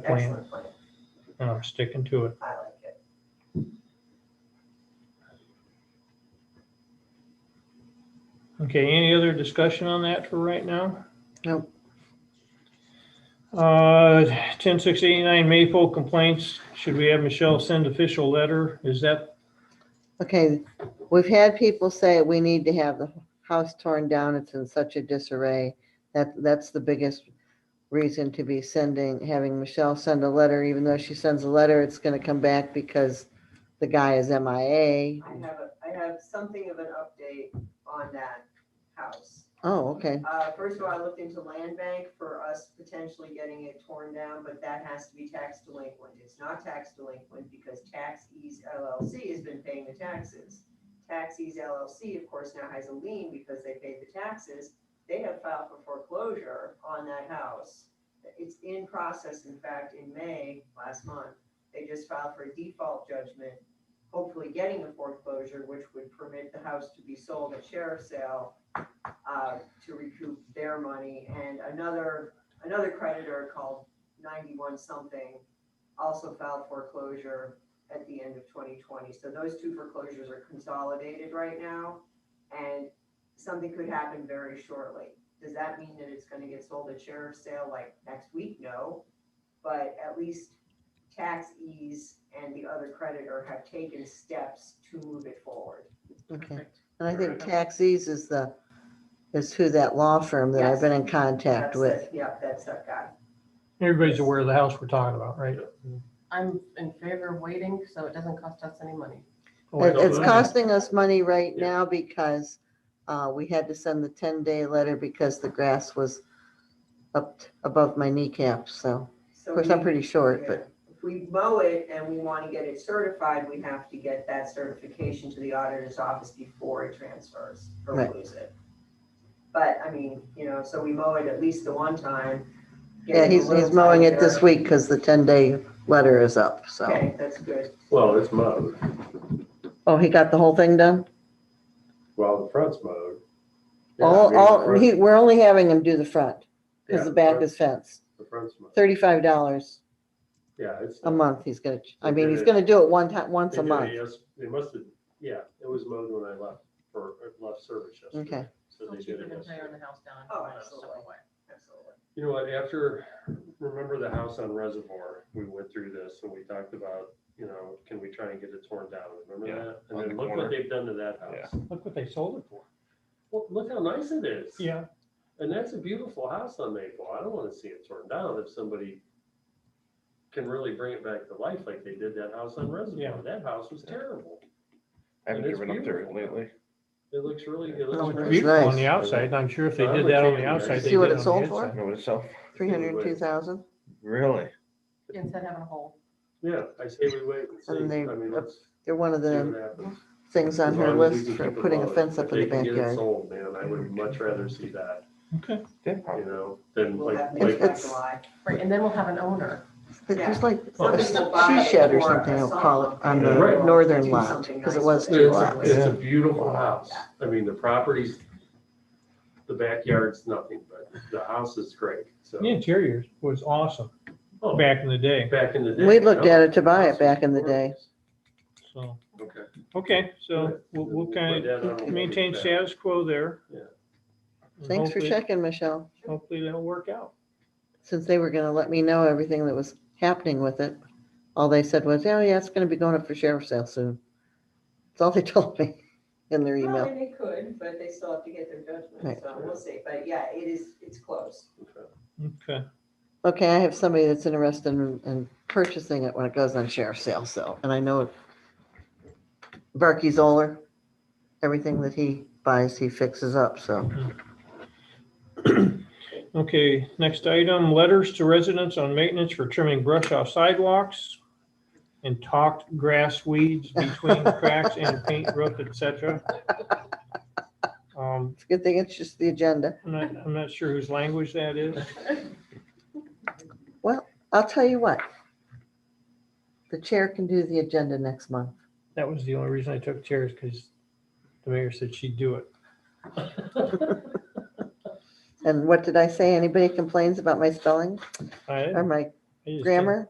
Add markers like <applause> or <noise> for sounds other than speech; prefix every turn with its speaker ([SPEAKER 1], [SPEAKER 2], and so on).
[SPEAKER 1] plan,
[SPEAKER 2] Excellent plan.
[SPEAKER 1] and I'm uh, sticking to it.
[SPEAKER 2] I like it.
[SPEAKER 1] Okay, any other discussion on that for right now?
[SPEAKER 3] Nope.
[SPEAKER 1] Uh, ten six eighty-nine Maple complaints, should we have Michelle send official letter? Is that,
[SPEAKER 3] Okay, we've had people say we need to have the house torn down, it's in such a disarray. That, that's the biggest reason to be sending, having Michelle send a letter, even though she sends a letter, it's gonna come back because the guy is MIA.
[SPEAKER 2] I have, a- I have something of an update on that house.
[SPEAKER 3] Oh, okay,
[SPEAKER 2] Uh, first of all, I looked into land bank for us potentially getting it torn down, but that has to be tax delinquent. It's not tax delinquent because Tax Ease LLC has been paying the taxes. Tax Ease LLC, of course, now has a lien because they paid the taxes. They have filed for foreclosure on that house. It's in process, in fact, in May, last month. They just filed for a default judgment, hopefully getting a foreclosure, which would permit the house to be sold at sheriff's sale uh, to recoup their money. And another, another creditor called 91 something also filed foreclosure at the end of 2020. So those two foreclosures are consolidated right now and something could happen very shortly. Does that mean that it's going to get sold at sheriff's sale like next week? No. But at least tax ease and the other creditor have taken steps to move it forward.
[SPEAKER 3] okay. And I think Taxis is the, is who that law firm that I've been in contact
[SPEAKER 2] That's
[SPEAKER 3] with.
[SPEAKER 2] it. Yep, that's that guy.
[SPEAKER 1] everybody's aware of the house we're talking about, right?
[SPEAKER 4] I'm in favor of waiting, so it doesn't cost us any money.
[SPEAKER 3] It- It's
[SPEAKER 1] cost.
[SPEAKER 3] costing us money right now because uh, we had to send the 10-day letter because the grass was up t- above my kneecap, so,
[SPEAKER 2] So
[SPEAKER 3] of course, I'm
[SPEAKER 2] we-
[SPEAKER 3] pretty short,
[SPEAKER 2] Yeah.
[SPEAKER 3] but,
[SPEAKER 2] If we mow it and we want to get it certified, we have to get that certification to the auditor's office before it transfers or we
[SPEAKER 3] Right.
[SPEAKER 2] lose it. But I mean, you know, so we mow it at least the one time. get
[SPEAKER 3] yeah,
[SPEAKER 2] it a
[SPEAKER 3] he's,
[SPEAKER 2] little
[SPEAKER 3] he's mowing it this
[SPEAKER 2] tighter.
[SPEAKER 3] week because the 10-day letter is up, so.
[SPEAKER 2] Okay, that's good.
[SPEAKER 5] Well, it's mowed.
[SPEAKER 3] Oh, he got the whole thing done?
[SPEAKER 5] Well, the front's mowed. Yeah, I mean,
[SPEAKER 3] All,
[SPEAKER 5] the
[SPEAKER 3] all,
[SPEAKER 5] front-
[SPEAKER 3] he, we're only having him do the front
[SPEAKER 5] yeah,
[SPEAKER 3] because the back
[SPEAKER 5] front-
[SPEAKER 3] is fenced.
[SPEAKER 5] The front's mowed.
[SPEAKER 3] $35
[SPEAKER 5] Yeah, it's.
[SPEAKER 3] a month he's gonna, ch- I
[SPEAKER 5] They
[SPEAKER 3] mean,
[SPEAKER 5] did
[SPEAKER 3] he's
[SPEAKER 5] it-
[SPEAKER 3] gonna do it one time, once
[SPEAKER 5] they
[SPEAKER 3] a
[SPEAKER 5] did it
[SPEAKER 3] month.
[SPEAKER 5] yes- They must have, yeah, it was mowed when I left for, left service yesterday.
[SPEAKER 3] Okay.
[SPEAKER 5] So they did
[SPEAKER 4] cheaper
[SPEAKER 5] it
[SPEAKER 4] than tearing
[SPEAKER 5] yesterday.
[SPEAKER 4] the house down.
[SPEAKER 2] Oh,
[SPEAKER 4] and putting it
[SPEAKER 2] absolutely.
[SPEAKER 4] stuff away.
[SPEAKER 2] Absolutely.
[SPEAKER 5] You know what, after, remember the house on Reservoir, we went through this and we talked about, you know, can we try and get it torn down?
[SPEAKER 6] Yeah,
[SPEAKER 5] Remember that?
[SPEAKER 6] on
[SPEAKER 5] And then
[SPEAKER 6] the
[SPEAKER 5] look
[SPEAKER 6] corner.
[SPEAKER 5] what they've done to that house.
[SPEAKER 1] Look what they sold it for.
[SPEAKER 5] Well, look how nice it is.
[SPEAKER 1] Yeah,
[SPEAKER 5] And that's a beautiful house on Maple. I don't want to see it torn down if somebody can really bring it back to life like they did that house on
[SPEAKER 1] Yeah.
[SPEAKER 5] Reservoir. That house was terrible.
[SPEAKER 6] I haven't
[SPEAKER 5] And it's
[SPEAKER 6] driven up there
[SPEAKER 5] beautiful.
[SPEAKER 6] lately.
[SPEAKER 5] It looks really, it
[SPEAKER 1] Well,
[SPEAKER 3] Oh,
[SPEAKER 5] looks.
[SPEAKER 1] it's
[SPEAKER 5] nice.
[SPEAKER 1] beautiful
[SPEAKER 3] nice.
[SPEAKER 1] on the outside, and I'm sure if they
[SPEAKER 5] I
[SPEAKER 1] did
[SPEAKER 5] would
[SPEAKER 1] that on
[SPEAKER 5] take
[SPEAKER 1] the
[SPEAKER 5] it,
[SPEAKER 1] outside,
[SPEAKER 5] Mary.
[SPEAKER 1] they
[SPEAKER 3] See what
[SPEAKER 1] did
[SPEAKER 3] it
[SPEAKER 1] on the
[SPEAKER 3] sold for?
[SPEAKER 1] inside.
[SPEAKER 6] Know itself,
[SPEAKER 3] 302,000?
[SPEAKER 6] really?
[SPEAKER 4] Instead of having a hole.
[SPEAKER 5] Yeah, I say we wait and see.
[SPEAKER 3] And they-
[SPEAKER 5] I mean, let's see
[SPEAKER 3] They're one of the
[SPEAKER 5] what happens.
[SPEAKER 3] things on
[SPEAKER 5] As
[SPEAKER 3] her
[SPEAKER 5] long as we
[SPEAKER 3] list
[SPEAKER 5] can
[SPEAKER 3] for
[SPEAKER 5] keep it
[SPEAKER 3] putting a
[SPEAKER 5] low.
[SPEAKER 3] fence
[SPEAKER 5] If
[SPEAKER 3] up in the
[SPEAKER 5] they can get it
[SPEAKER 3] backyard.
[SPEAKER 5] Sold, man, I would much rather see that,
[SPEAKER 1] Okay,
[SPEAKER 6] Yeah.
[SPEAKER 5] you know, than
[SPEAKER 2] We'll
[SPEAKER 5] like,
[SPEAKER 2] have
[SPEAKER 5] like,
[SPEAKER 2] next by
[SPEAKER 3] It's-
[SPEAKER 2] July.
[SPEAKER 4] Right, and then we'll have an owner.
[SPEAKER 3] But There's like
[SPEAKER 1] Well,
[SPEAKER 3] a
[SPEAKER 2] Somebody will buy
[SPEAKER 3] she
[SPEAKER 2] it
[SPEAKER 3] shed or
[SPEAKER 2] for
[SPEAKER 3] something,
[SPEAKER 2] a
[SPEAKER 3] I'll call it,
[SPEAKER 2] song.
[SPEAKER 3] on
[SPEAKER 5] Right.
[SPEAKER 3] the
[SPEAKER 2] They'll
[SPEAKER 3] northern
[SPEAKER 2] do
[SPEAKER 3] lot,
[SPEAKER 2] something
[SPEAKER 3] because it
[SPEAKER 2] nice
[SPEAKER 3] was
[SPEAKER 2] with
[SPEAKER 3] two
[SPEAKER 2] it.
[SPEAKER 3] lots.
[SPEAKER 5] it's, a- it's a beautiful house.
[SPEAKER 2] Yeah.
[SPEAKER 5] I mean, the property's, the backyard's nothing, but the house is great, so.
[SPEAKER 1] the interior was awesome
[SPEAKER 5] Oh,
[SPEAKER 1] back in the day,
[SPEAKER 5] Back in the day.
[SPEAKER 3] We looked
[SPEAKER 5] no?
[SPEAKER 3] at it to buy it back in the day.
[SPEAKER 1] so,
[SPEAKER 5] Okay.
[SPEAKER 1] okay, so
[SPEAKER 5] Good.
[SPEAKER 1] we'll, we'll
[SPEAKER 5] Put
[SPEAKER 1] kind
[SPEAKER 5] that on
[SPEAKER 1] of
[SPEAKER 5] hold.
[SPEAKER 1] maintain status quo there.
[SPEAKER 5] Yeah.
[SPEAKER 1] And
[SPEAKER 3] Thanks for
[SPEAKER 1] hopefully-
[SPEAKER 3] checking, Michelle,
[SPEAKER 1] Hopefully that'll work out.
[SPEAKER 3] since they were gonna let me know everything that was happening with it. All they said was, oh yeah, it's gonna be going up for sheriff's sale soon. That's all they <laughs> told me in their
[SPEAKER 2] Well,
[SPEAKER 3] email.
[SPEAKER 2] and they could, but they still have to get their judgment,
[SPEAKER 3] Right.
[SPEAKER 2] so we'll see. But yeah, it is, it's close.
[SPEAKER 5] Okay.
[SPEAKER 1] Okay,
[SPEAKER 3] Okay, I have somebody that's interested in, in purchasing it when it goes on sheriff's sale, so, and I know it. Barkey Zoller, everything that he buys, he fixes up, so.
[SPEAKER 1] okay, next item, letters to residents on maintenance for trimming brush off sidewalks and talked grass weeds
[SPEAKER 3] <laughs>
[SPEAKER 1] between cracks and paint roof, et cetera. Um,
[SPEAKER 3] It's a good thing it's just the agenda.
[SPEAKER 1] I'm not, I'm not sure whose language that is.
[SPEAKER 3] I'll tell you what. The chair can do the agenda next month.
[SPEAKER 1] That was the only reason I took chairs, because the mayor said she'd do
[SPEAKER 3] <laughs>
[SPEAKER 1] it.
[SPEAKER 3] And what did I say? Anybody complains about my spelling
[SPEAKER 1] I,
[SPEAKER 3] or my
[SPEAKER 1] I just think-
[SPEAKER 3] grammar?